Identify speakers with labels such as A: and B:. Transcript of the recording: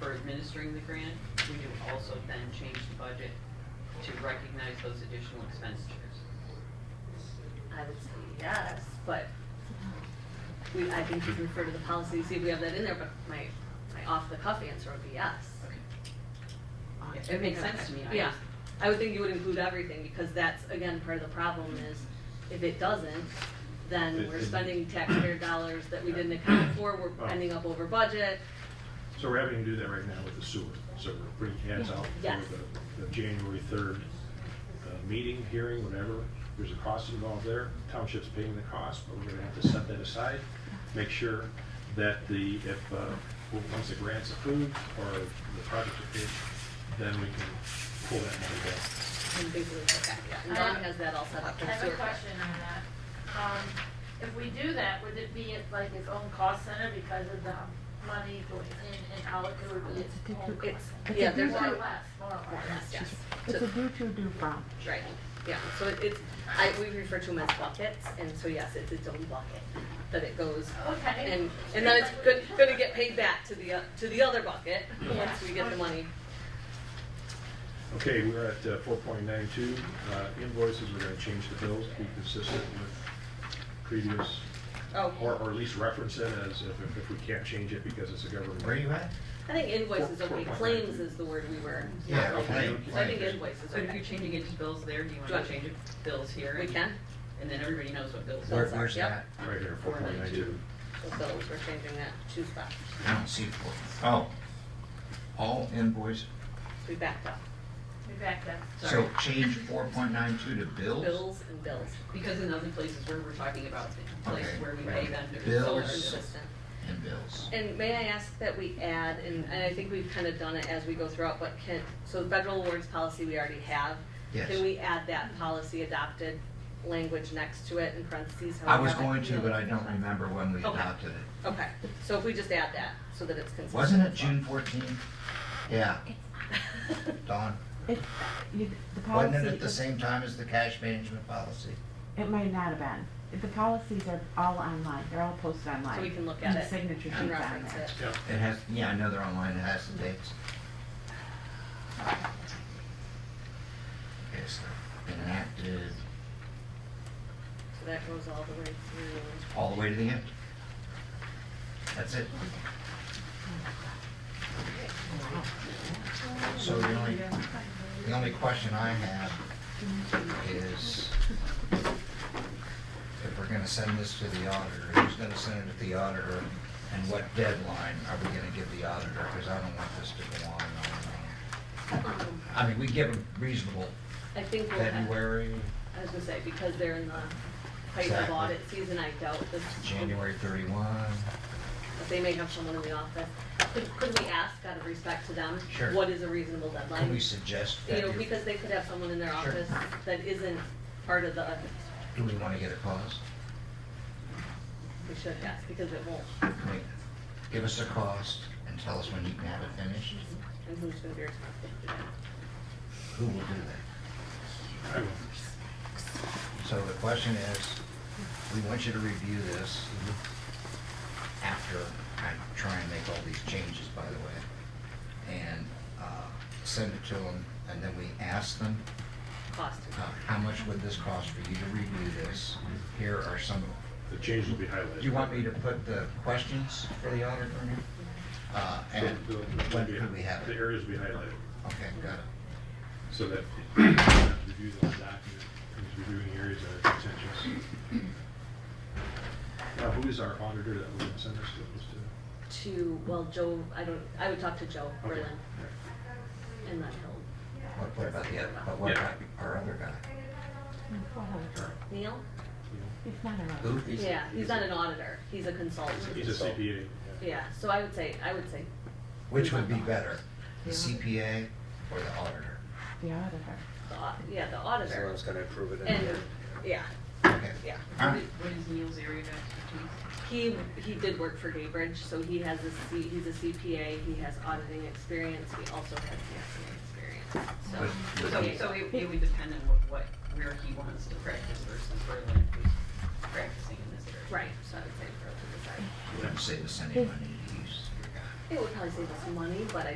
A: for administering the grant, we do also then change the budget to recognize those additional expenditures.
B: I would say yes, but we, I think you can refer to the policy, to see if we have that in there, but my, my off-the-cuff answer would be yes.
A: It makes sense to me. I
B: Yeah,
A: just-
B: I would think you would include everything, because that's, again, part of the problem is, if it doesn't, then
C: It-
B: we're
C: it-
B: spending taxpayer dollars that we didn't account for,
C: Oh.
B: we're ending up over budget.
C: So we're having to do that right now with the sewer, so we're putting hats out
B: Yes.
C: for the, the January third uh, meeting, hearing, whatever. There's a cost involved there, township's paying the cost, but we're gonna have to set that aside, make sure that the, if, uh, well, once the grant's approved or the project approved, then we can pull that money back.
B: And basically, okay, yeah, and
D: Uh,
B: Dawn has that all set up for
D: I
B: the
D: have a
B: sewer.
D: question on that. Um, if we do that, would it be at, like its own cost center because of the money going in and out, it would be its own cost center?
B: It's- yeah, there's
D: More or
B: no-
D: less, more or less.
B: Yes,
E: It's a
B: to-
E: do to do from.
B: Right, yeah, so it- it's, I, we refer to them as buckets, and so yes, it's its own bucket that it goes.
D: Okay.
B: And, and then it's good, gonna get paid back to the, o- to the other bucket, once we get the money.
C: Okay, we're at uh, four point nine two, uh, invoices, we're gonna change the bills, to be consistent with previous,
B: Oh,
C: or, or at least reference it as if, if we can't change it because it's a government.
F: Where are you at?
B: I think invoices,
C: Four-
B: okay,
C: four point
B: claims
C: nine.
B: is the word we were.
F: Yeah,
B: not
F: okay,
B: looking at. So I think
F: claims.
B: invoices,
A: So if you're
B: okay.
A: changing it to bills there, do you want
B: Sure.
A: to change it to bills here?
B: We
A: and-
B: can,
A: And then everybody knows what bills
F: Where,
A: are.
B: Sorry,
F: where's that?
B: yep.
C: Right here, four point nine two.
B: so those, we're changing that, two spots,
F: I don't see four. Oh, all invoice,
B: we backed up,
D: We back that.
F: so
A: Sorry.
F: change four point nine two to bills?
B: bills and bills,
A: Because in other places where we're talking about the place
F: Okay,
A: where we pay
F: right.
A: vendors.
B: so we're
F: Bills.
B: consistent.
F: And bills.
B: And may I ask that we add, and, and I think we've kind of done it as we go throughout, but can, so the federal awards policy we already have.
F: Yes.
B: Can we add that policy adopted language next to it in parentheses? how
F: I
B: we
F: was
B: have it?
F: going to, but I don't remember when we
B: Okay.
F: adopted it.
B: Okay, so if we just add that, so that it's consistent.
F: Wasn't it June fourteenth? Yeah, Dawn,
E: It, you, the policy.
F: wasn't it at the same time as the cash management policy?
E: It might not have been. If The policies are all online. They're all posted online.
B: So we can look at
E: And
B: it
E: The signature sheet's
B: And
E: on
B: reference
E: there.
B: it.
C: Yeah.
F: It has, yeah, I know they're online, it has the dates. Okay, so enacted
B: So that goes all the way through.
F: all the way to the end. That's it. So the only, the only question I have is if we're gonna send this to the auditor, who's gonna send it to the auditor? And what deadline are we gonna give the auditor? Because I don't want this to go on and on and
B: Um,
F: on. I mean, we give them reasonable
B: I think we'll have, I
F: February,
B: was gonna say, because they're in the height of
F: Exactly.
B: audit season, I doubt this.
F: January thirty-one.
B: But they may have someone in the office. Could, could we ask out of respect to them?
F: Sure.
B: What is a reasonable deadline?
F: Can we suggest
B: You
F: that?
B: know,
F: if-
B: because they could have someone in their
F: Sure.
B: office that isn't part of the,
F: Do we wanna get a cost?
B: we should ask, because it won't,
F: Wait, Give us a cost and tell us when you can have it finished.
B: and who's gonna be responsible for that?
F: Who will do that?
C: I will.
F: So the question is, we want you to review this after I try and make all these changes, by the way, and uh, send it to them, and then we ask them,
B: Cost.
F: uh, how much would this cost for you to review this? Here are some,
C: The change will be highlighted.
F: do you want me to put the questions for the auditor? Uh,
C: So
F: And
C: the-
F: when could we have
C: The
F: it?
C: areas will be highlighted,
F: Okay, got it.
C: so that you have to review the document, is reviewing areas that are contentious. Now, who is our auditor that we're gonna send this to? Just to-
B: To, well, Joe, I don't, I would talk to Joe
C: okay.
B: Berlin,
C: All right.
B: and then he'll,
F: What what about the other, but what about our other guy?
B: Neil?
E: It's not a
F: Who?
E: road.
F: He's-
B: Yeah, he's not an auditor, he's a consultant.
C: He's a CPA.
B: Yeah, so I would say, I would say,
F: Which would be better, the
E: Yeah.
F: CPA or the auditor?
E: The auditor.
B: the au- yeah, the auditor,
G: Someone's gonna approve it in
B: and,
G: the end.
B: yeah,
F: Okay.
B: yeah.
F: All
A: What
F: right.
A: is- what is Neil's area of expertise?
B: He, he did work for Gaybridge, so he has a C, he's a CPA, he has auditing experience, he also has taxing
F: But-
B: experience, so.
F: but
A: So,
B: he-
A: so it, it would depend on what, what, where he wants to practice versus where Lynn is practicing in this area.
B: Right, so I would say throw it to the side.
F: Wouldn't save us any money to use your guy.
B: It would probably save us money, but I